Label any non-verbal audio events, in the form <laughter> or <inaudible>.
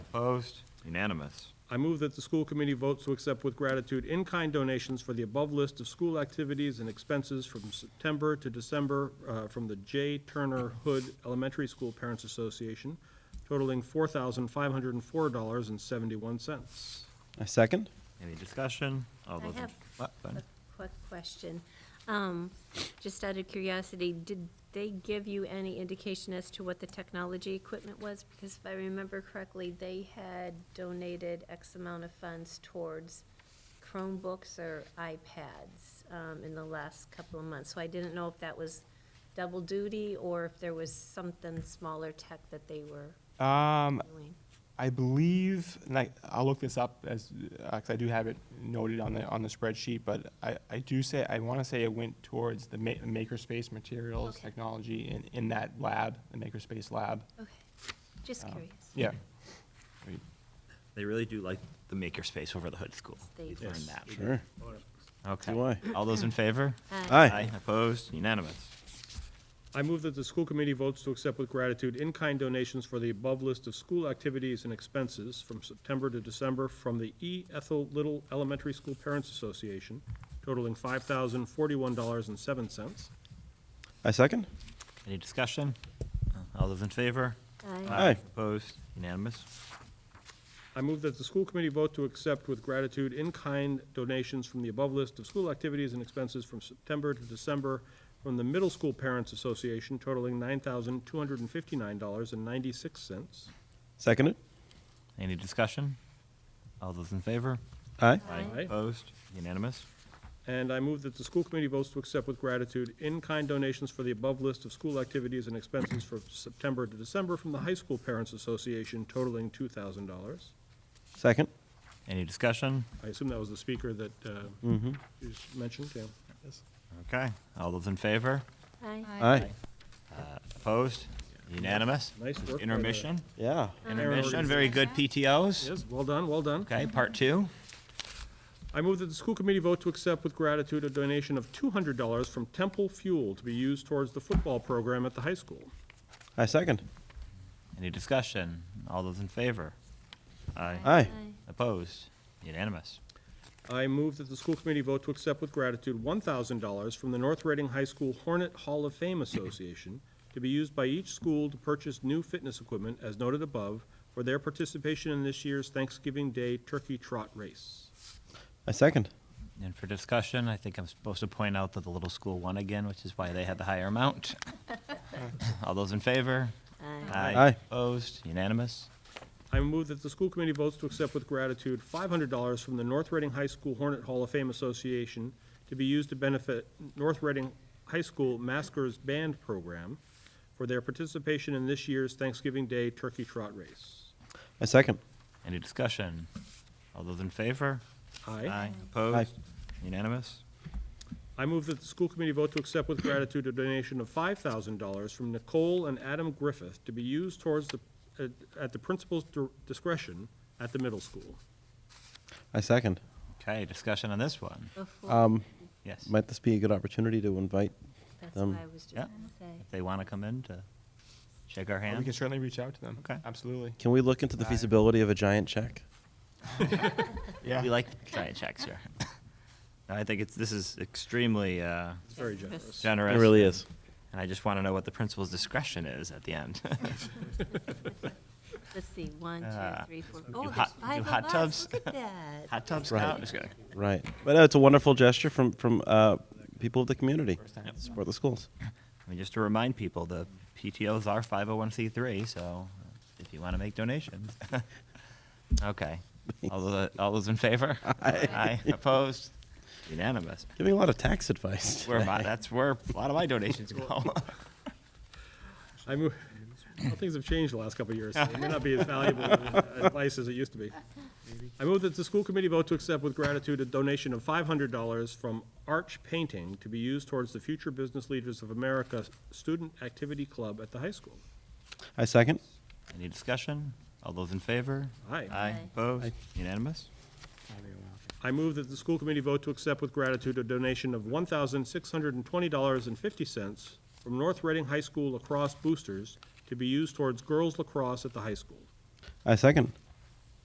Opposed? Unanimous. I move that the school committee vote to accept with gratitude in-kind donations for the above list of school activities and expenses from September to December uh, from the J. Turner Hood Elementary School Parents Association totaling $4,504.71. I second. Any discussion? All I those in- have What, a Ben? quick question. Um, Just out of curiosity, did they give you any indication as to what the technology equipment was? Because if I remember correctly, they had donated X amount of funds towards Chromebooks or iPads um, in the last couple of months. So I didn't know if that was double duty or if there was something smaller tech that they were Um, doing. I believe, and I, I'll look this up as, uh 'cause I do have it noted on the, on the spreadsheet, but I, I do say, I wanna say it went towards the ma- makerspace materials, Okay. technology in, in that lab, the makerspace lab. Okay, just Um, curious. Yeah. They really do like the makerspace over the hood school. They We've do. learned that. Sure. Okay. Do I. All those in favor? Uh, Aye. Opposed? Unanimous. I move that the school committee votes to accept with gratitude in-kind donations for the above list of school activities and expenses from September to December from the E. Ethel Little Elementary School Parents Association totaling $5,041.07. I second. Any discussion? All those in favor? Aye. Aye. Opposed? Unanimous. I move that the school committee vote to accept with gratitude in-kind donations from the above list of school activities and expenses from September to December from the Middle School Parents Association totaling $9,259.96. Seconded. Any discussion? All those in favor? Aye. Aye. Aye. Opposed? Unanimous. And I move that the school committee votes to accept with gratitude in-kind donations for the above list of school activities and expenses for September to December from the High School Parents Association totaling $2,000. Second. Any discussion? I assume that was the speaker that uh, Mm. Mm-hmm. you mentioned, yeah. Okay. All those in favor? Aye. Aye. Opposed? Unanimous. Nice work by the- Intermission. Yeah. Intermission. Very good PTOs. Yes, well done, well done. Okay, part two. I move that the school committee vote to accept with gratitude a donation of $200 from Temple Fuel to be used towards the football program at the high school. I second. Any discussion? All those in favor? Aye. Aye. Opposed? Unanimous. I move that the school committee vote to accept with gratitude $1,000 from the North Reading High School Hornet Hall of Fame Association to be used by each school to purchase new fitness equipment, as noted above, for their participation in this year's Thanksgiving Day Turkey Trot Race. I second. And for discussion, I think I'm supposed to point out that the little school won again, which is why they had the higher amount. All those in favor? Aye. Aye. Opposed? Unanimous? I move that the school committee votes to accept with gratitude five hundred dollars from the North Reading High School Hornet Hall of Fame Association to be used to benefit North Reading High School Maskers Band Program for their participation in this year's Thanksgiving Day Turkey Trot Race. I second. Any discussion? All those in favor? Aye. Opposed? Unanimous? I move that the school committee vote to accept with gratitude a donation of five thousand dollars from Nicole and Adam Griffith to be used towards the, at- at the principal's dir- discretion at the middle school. I second. Okay, discussion on this one? Before- Um, Yes. might this be a good opportunity to invite? That's um, what I was just yeah. gonna say. If they want to come in to shake our We can hand? certainly reach out to them. Okay. Absolutely. Can we look into the Aye. feasibility of a giant check? Yeah. We like giant checks <laughs> here. I think it's, this is extremely uh, It's very generous. generous. It really is. And I just want to know what the principal's discretion is at the end. Let's see, one, Uh, two, three, four. do Oh, there's hot- five do of hot us. tubs? Look at that. <laughs> <laughs> Hot tub Right. scout? Just kidding. Right. But no, it's a wonderful gesture from from uh, people of the community. Support the schools. I mean, just to remind people, the PTOs are 501c3, so if you want to make donations. <laughs> Okay. All those, all those in favor? Aye. Opposed? Unanimous. Giving a lot of tax advice. Where my, that's where a lot of my donations go. <laughs> I move, well, things have changed the last couple of years. so It may not be as valuable advice as it used to be. I move that the school committee vote to accept with gratitude a donation of five hundred dollars from Arch Painting to be used towards the Future Business Leaders of America Student Activity Club at the high school. I second. Any discussion? All those in favor? Aye. Aye. Aye. Opposed? Unanimous? I move that the school committee vote to accept with gratitude a donation of one thousand six hundred and twenty dollars and fifty cents from North Reading High School lacrosse boosters to be used towards girls lacrosse at the high school. I second.